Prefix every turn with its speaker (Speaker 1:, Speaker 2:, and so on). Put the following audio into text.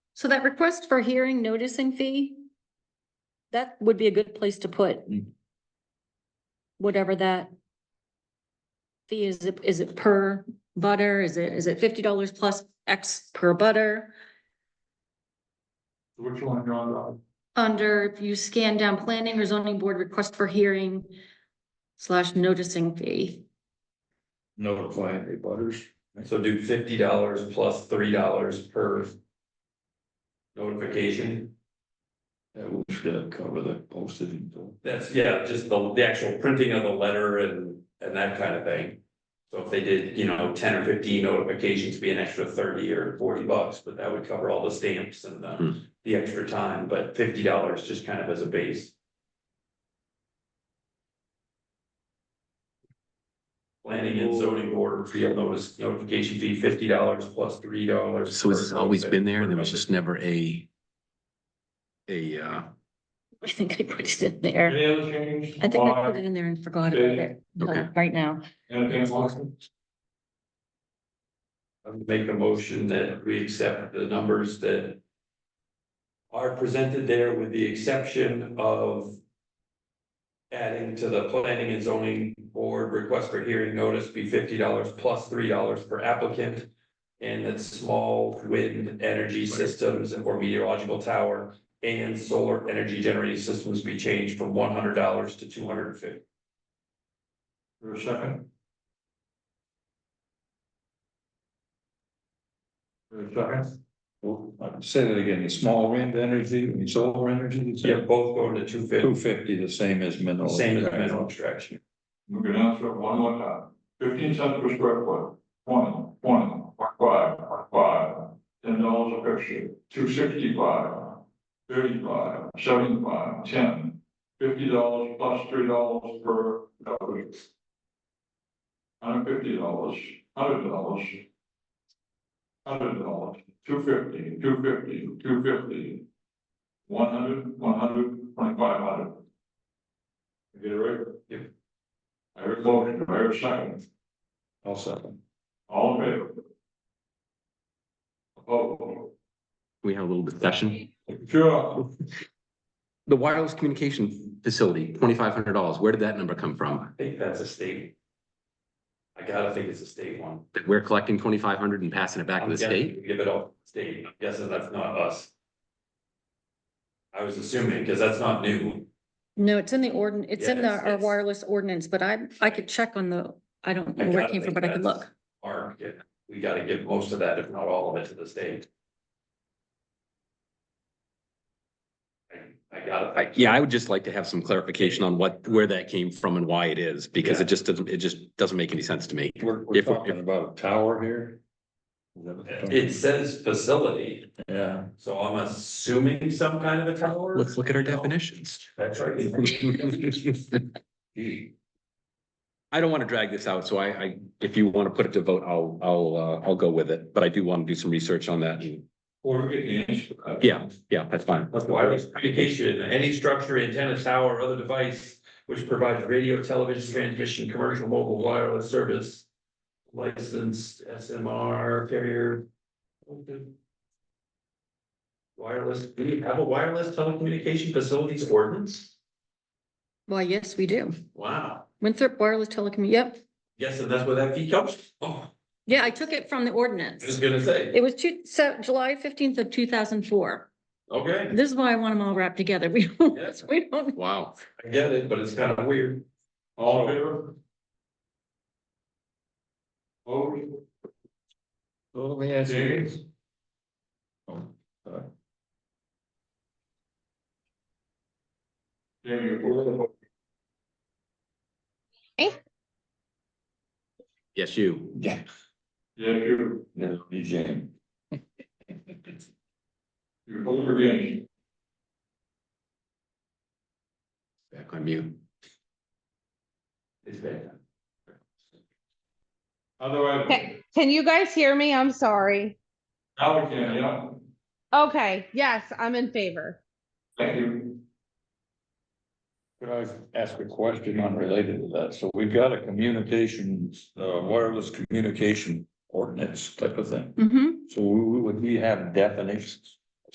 Speaker 1: So that request for hearing noticing fee, that would be a good place to put
Speaker 2: Mm.
Speaker 1: whatever that fee is, It- is it per butter? Is it, is it fifty dollars plus X per butter?
Speaker 2: Which one you're on, Rob?
Speaker 1: Under, if you scan down planning or zoning board request for hearing slash noticing fee.
Speaker 2: Notify any butters.
Speaker 3: So do fifty dollars plus three dollars per. Notification,
Speaker 2: That will should cover the postage. and stuff.
Speaker 3: that's, yeah, just the, the actual printing of the letter and, and that kind of thing. So if they did, you know, ten or fifteen notifications, be an extra thirty or forty bucks, but that would cover all the stamps and
Speaker 2: Hmm.
Speaker 3: the, the extra time, but fifty dollars just kind of as a base. Planning and zoning board field notice notification fee fifty dollars plus three dollars.
Speaker 4: So it's always been there, there was just never a. A, uh,
Speaker 1: I think I put it in there.
Speaker 2: Any other change?
Speaker 1: I think I put it in there and forgot about it
Speaker 4: Okay.
Speaker 1: right now.
Speaker 2: Anything Lawson?
Speaker 3: I'm make a motion that we accept the numbers that. Are presented there with the exception of. Adding to the planning and zoning board request for hearing notice be fifty dollars plus three dollars per applicant. And that small wind energy systems or meteorological tower and solar energy generating systems be changed from one hundred dollars to two hundred and fifty.
Speaker 2: For a second? For a second? Say that again, the small wind energy, and solar energy. you said?
Speaker 3: Yeah, both going to two fifty,
Speaker 2: Two fifty, the same as mineral.
Speaker 3: same as mineral extraction.
Speaker 5: We can answer it one more time. Fifteen cents per square foot, twenty, twenty, five, five, ten dollars a picture, two sixty-five, thirty-five, seventy-five, ten, fifty dollars plus three dollars per cover. Hundred fifty dollars, hundred dollars. Hundred dollars, two fifty, two fifty, two fifty. One hundred, one hundred, twenty-five hundred. You Get it right? I heard a motion, I heard a second,
Speaker 2: I'll second.
Speaker 5: all in favor? Opposed?
Speaker 4: we had a little discussion.
Speaker 5: Sure,
Speaker 4: The wireless communication facility, twenty-five hundred dollars, where did that number come from?
Speaker 3: I think that's a state. I gotta think it's a state one.
Speaker 4: That we're collecting twenty-five hundred and passing it back to
Speaker 3: I'm
Speaker 4: the
Speaker 3: guessing
Speaker 4: state?
Speaker 3: we Give it all state, I'm guessing that's not us. I was assuming, because that's not new,
Speaker 1: No, it's in the ordin, it's in the,
Speaker 3: Yes,
Speaker 1: our
Speaker 3: yes.
Speaker 1: wireless ordinance, but I, I could check on the, I don't
Speaker 3: I
Speaker 1: know where it
Speaker 3: gotta
Speaker 1: came from,
Speaker 3: think
Speaker 1: but I could
Speaker 3: that's-
Speaker 1: look.
Speaker 3: or yeah, we gotta give most of that, if not all of it, to the state. I, I gotta,
Speaker 4: I, yeah, I would just like to have some clarification on what, where that came from and why it is, because it just doesn't, it just doesn't make any sense to me.
Speaker 2: We're,
Speaker 4: If-
Speaker 2: we're
Speaker 4: if-
Speaker 2: talking about a tower here.
Speaker 3: it says facility,
Speaker 2: Yeah.
Speaker 3: so I'm assuming some kind of a tower.
Speaker 4: Let's look at our definitions.
Speaker 3: That's right.
Speaker 4: I don't want to drag this out, so I, I, if you want to put it to vote, I'll, I'll, uh, I'll go with it, but I do want to do some research on that. and-
Speaker 5: or we get the answer.
Speaker 4: Yeah, yeah, that's fine.
Speaker 3: That's wireless communication, any structure, antenna, tower, or other device which provides radio, television, transmission, commercial, mobile, wireless service. Licensed SMR carrier. Wireless, do we have a wireless telecommunication facilities ordinance?
Speaker 1: Why, yes, we do.
Speaker 3: Wow,
Speaker 1: Winthrop Wireless Telecom, yep.
Speaker 3: yes, and that's where that fee comes, from. oh,
Speaker 1: Yeah, I took it from the
Speaker 3: I was
Speaker 1: ordinance.
Speaker 3: gonna say,
Speaker 1: It was two, so July fifteenth of two thousand four.
Speaker 3: okay,
Speaker 1: This is why I want them all wrapped together. We, don't- we don't,
Speaker 4: Wow.
Speaker 3: I get it, but it's kind of weird.
Speaker 5: All in favor? Opposed?
Speaker 2: Well, let me ask you. Oh,
Speaker 5: James? Jamie, you're for the vote.
Speaker 4: Yes, you.
Speaker 2: Yeah.
Speaker 5: yeah, you,
Speaker 2: No, he's James.
Speaker 5: you're both against,
Speaker 4: Back on mute.
Speaker 3: It's bad.
Speaker 5: otherwise,
Speaker 6: Okay, can you guys hear me? I'm sorry.
Speaker 5: now we can, yeah,
Speaker 6: Okay, yes, I'm in favor.
Speaker 5: thank you.
Speaker 2: Could I ask a question unrelated to that? So we've got a communications, uh, wireless communication ordinance type of thing.
Speaker 1: Mhm.
Speaker 2: So we- we- would we have definitions?